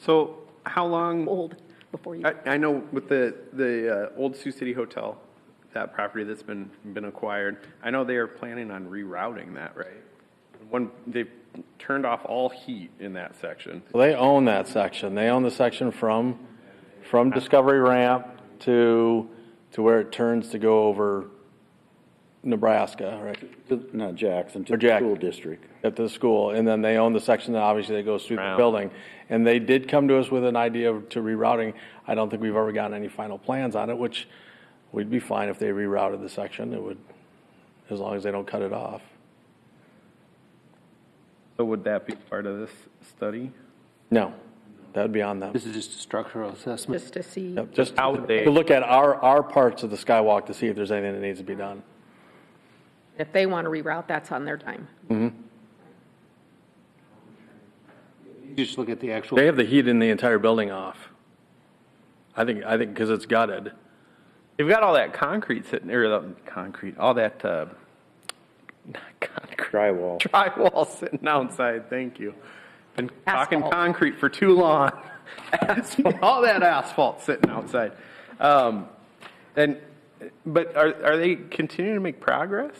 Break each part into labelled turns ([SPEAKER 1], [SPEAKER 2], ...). [SPEAKER 1] So how long,
[SPEAKER 2] old before you.
[SPEAKER 1] I, I know with the, the uh, old Sioux City Hotel, that property that's been, been acquired, I know they are planning on rerouting that, right? One, they've turned off all heat in that section.
[SPEAKER 3] They own that section. They own the section from, from Discovery Ramp to, to where it turns to go over Nebraska, right?
[SPEAKER 4] To- Not Jackson, to
[SPEAKER 3] Or
[SPEAKER 4] the
[SPEAKER 3] Jack-
[SPEAKER 4] school district.
[SPEAKER 3] At the school, and then they own the section that obviously that goes through the
[SPEAKER 1] Round.
[SPEAKER 3] building. And they did come to us with an idea of- to rerouting. I don't think we've ever gotten any final plans on it, which we'd be fine if they rerouted the section. It would, as long as they don't cut it off.
[SPEAKER 1] So would that be part of this study?
[SPEAKER 3] No, that'd be on them.
[SPEAKER 5] This is just a structural assessment.
[SPEAKER 2] Just to see,
[SPEAKER 3] Yep, Just
[SPEAKER 1] How would they-
[SPEAKER 3] to look at our, our parts of the skywalk to see if there's anything that needs to be done.
[SPEAKER 2] if they want to reroute, that's on their time.
[SPEAKER 5] You just look at the actual,
[SPEAKER 3] They have the heat in the entire building off. I think, I think, because it's gutted.
[SPEAKER 1] They've got all that concrete sitting, or the concrete, all that, uh, not concrete.
[SPEAKER 4] Drywall.
[SPEAKER 1] Drywall sitting outside, thank you. Been talking
[SPEAKER 2] Asphalt.
[SPEAKER 1] concrete for too long. Asphalt, All that asphalt sitting outside. Um, and, but are, are they continuing to make progress?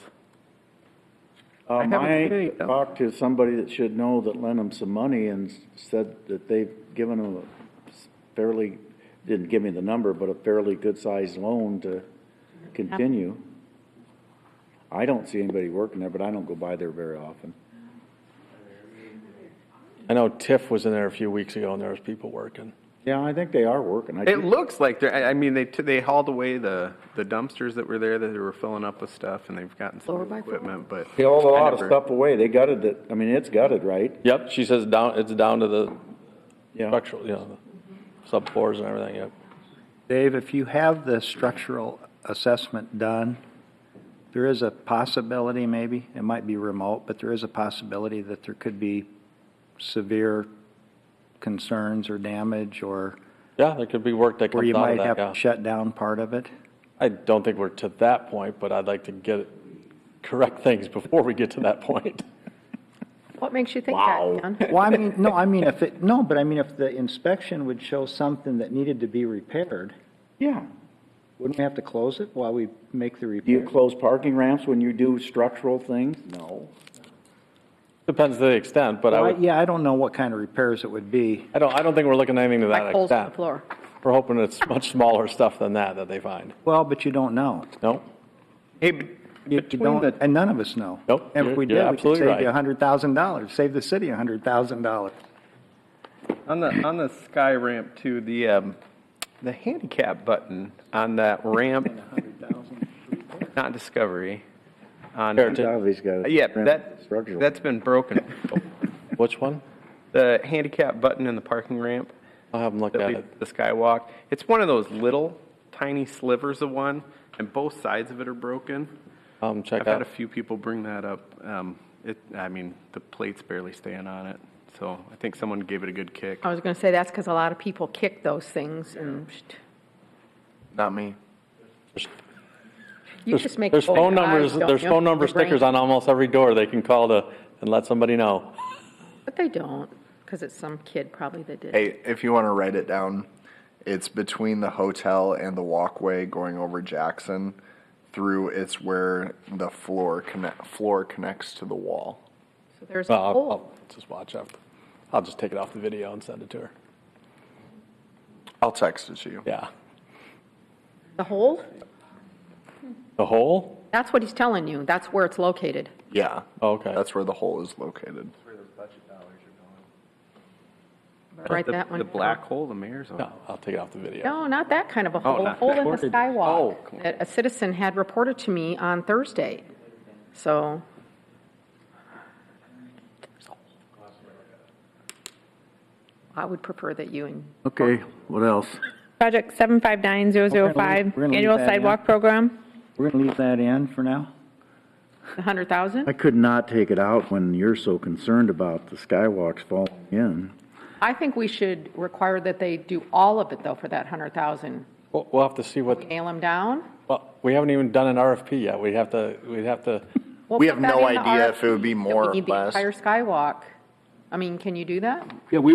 [SPEAKER 4] Uh,
[SPEAKER 1] haven't seen
[SPEAKER 4] I
[SPEAKER 1] any, though.
[SPEAKER 4] talked to somebody that should know that lent them some money and s- said that they've given them a s- fairly, didn't give me the number, but a fairly good-sized loan to continue. I don't see anybody working there, but I don't go by there very often.
[SPEAKER 3] I know TIF was in there a few weeks ago and there was people working.
[SPEAKER 4] Yeah, I think they are working. I
[SPEAKER 1] It
[SPEAKER 4] keep-
[SPEAKER 1] looks like they're, I, I mean, they, t- they hauled away the, the dumpsters that were there that they were filling up with stuff and they've gotten some
[SPEAKER 2] Lower
[SPEAKER 1] new
[SPEAKER 2] by four.
[SPEAKER 1] equipment, but.
[SPEAKER 4] They hauled a
[SPEAKER 1] I
[SPEAKER 4] lot of
[SPEAKER 1] never-
[SPEAKER 4] stuff away. They gutted it. I mean, it's gutted, right?
[SPEAKER 3] Yep, she says down, it's down to the
[SPEAKER 4] Yeah.
[SPEAKER 3] structural, you know, the subfloors and everything, yep.
[SPEAKER 6] Dave, if you have the structural assessment done, there is a possibility maybe, it might be remote, but there is a possibility that there could be severe concerns or damage or
[SPEAKER 3] Yeah, there could be work that
[SPEAKER 6] where
[SPEAKER 3] comes
[SPEAKER 6] you
[SPEAKER 3] out
[SPEAKER 6] might
[SPEAKER 3] of
[SPEAKER 6] have
[SPEAKER 3] that,
[SPEAKER 6] to
[SPEAKER 3] yeah.
[SPEAKER 6] shut down part of it.
[SPEAKER 3] I don't think we're to that point, but I'd like to get, correct things before we get to that point.
[SPEAKER 2] What makes you think that, Ken?
[SPEAKER 6] Well, I mean, no, I mean, if it, no, but I mean, if the inspection would show something that needed to be repaired,
[SPEAKER 4] Yeah.
[SPEAKER 6] wouldn't we have to close it while we make the
[SPEAKER 4] Do you
[SPEAKER 6] repair?
[SPEAKER 4] close parking ramps when you do structural things? No.
[SPEAKER 3] Depends to the extent, but I
[SPEAKER 6] Well, I-
[SPEAKER 3] would,
[SPEAKER 6] Yeah, I don't know what kind of repairs it would be.
[SPEAKER 3] I don't, I don't think we're looking at anything to that
[SPEAKER 2] Like holes in the
[SPEAKER 3] extent.
[SPEAKER 2] floor.
[SPEAKER 3] We're hoping it's much smaller stuff than that that they find.
[SPEAKER 6] Well, but you don't know.
[SPEAKER 3] No?
[SPEAKER 1] Hey, but
[SPEAKER 6] You
[SPEAKER 1] between
[SPEAKER 6] don't,
[SPEAKER 1] the,
[SPEAKER 6] and none of us know.
[SPEAKER 3] Nope,
[SPEAKER 6] And if
[SPEAKER 3] you're-
[SPEAKER 6] we
[SPEAKER 3] you're
[SPEAKER 6] did, we could
[SPEAKER 3] absolutely
[SPEAKER 6] save you
[SPEAKER 3] right.
[SPEAKER 6] hundred thousand dollars, save the city hundred thousand dollars.
[SPEAKER 1] on the, on the sky ramp to the, um, the handicap button on that ramp, not Discovery, on.
[SPEAKER 3] Heritage.
[SPEAKER 4] Obviously got. a
[SPEAKER 1] Uh, Yeah,
[SPEAKER 4] ramp
[SPEAKER 1] that,
[SPEAKER 4] structural.
[SPEAKER 1] that's been broken.
[SPEAKER 3] Which one?
[SPEAKER 1] The handicap button in the parking ramp
[SPEAKER 3] I'll have them look
[SPEAKER 1] that
[SPEAKER 3] at
[SPEAKER 1] leads
[SPEAKER 3] it.
[SPEAKER 1] to the skywalk, it's one of those little tiny slivers of one, and both sides of it are broken.
[SPEAKER 3] Um,
[SPEAKER 1] I've
[SPEAKER 3] check
[SPEAKER 1] had a
[SPEAKER 3] out.
[SPEAKER 1] few people bring that up. Um, It, I mean, the plate's barely staying on it, so I think someone gave it a good kick.
[SPEAKER 2] I was going to say, that's because a lot of people kick those things and
[SPEAKER 1] Not me.
[SPEAKER 2] you just make.
[SPEAKER 3] There's
[SPEAKER 2] people
[SPEAKER 3] phone
[SPEAKER 2] eyes
[SPEAKER 3] numbers,
[SPEAKER 2] don't
[SPEAKER 3] there's
[SPEAKER 2] know
[SPEAKER 3] phone number
[SPEAKER 2] your brain.
[SPEAKER 3] stickers on almost every door they can call to, and let somebody know.
[SPEAKER 2] But they don't, because it's some kid probably that did.
[SPEAKER 7] Hey, if you want to write it down, it's between the hotel and the walkway going over Jackson. Through it's where the floor connect, floor connects to the wall.
[SPEAKER 2] So there's a
[SPEAKER 3] Well, I'll, I'll
[SPEAKER 2] hole.
[SPEAKER 3] just watch after. I'll just take it off the video and send it to her.
[SPEAKER 7] I'll text it to you.
[SPEAKER 3] Yeah.
[SPEAKER 2] The hole?
[SPEAKER 3] The hole?
[SPEAKER 2] That's what he's telling you. That's where it's located.
[SPEAKER 7] Yeah.
[SPEAKER 3] Okay.
[SPEAKER 7] That's where the hole is located.
[SPEAKER 2] Write that one.
[SPEAKER 1] The
[SPEAKER 2] down.
[SPEAKER 1] black hole, the mayor's on.
[SPEAKER 3] No, I'll take it off the video.
[SPEAKER 2] No, Oh, not that kind of a
[SPEAKER 7] Oh,
[SPEAKER 2] hole, a
[SPEAKER 1] not
[SPEAKER 2] hole in the
[SPEAKER 1] reported.
[SPEAKER 2] skywalk
[SPEAKER 1] Oh, cool.
[SPEAKER 2] that a citizen had reported to me on Thursday. So I would prefer that you and
[SPEAKER 4] Okay, what else?
[SPEAKER 8] Project 759005,
[SPEAKER 6] We're gonna leave
[SPEAKER 8] annual
[SPEAKER 6] that in.
[SPEAKER 8] sidewalk program.
[SPEAKER 6] We're gonna leave that in for now?
[SPEAKER 2] the hundred thousand.
[SPEAKER 4] I could not take it out when you're so concerned about the skywalks falling in.
[SPEAKER 2] I think we should require that they do all of it though for that hundred thousand.
[SPEAKER 3] We'll, we'll have to see what,
[SPEAKER 2] Nail them down.
[SPEAKER 3] well, we haven't even done an RFP yet. We'd have to, we'd have to,
[SPEAKER 2] We'll
[SPEAKER 7] We
[SPEAKER 2] put
[SPEAKER 7] have
[SPEAKER 2] that
[SPEAKER 7] no
[SPEAKER 2] in the
[SPEAKER 7] idea if it would be
[SPEAKER 2] RFP, that
[SPEAKER 7] more or
[SPEAKER 2] We need the
[SPEAKER 7] less.
[SPEAKER 2] entire skywalk. I mean, can you do that?
[SPEAKER 5] yeah, we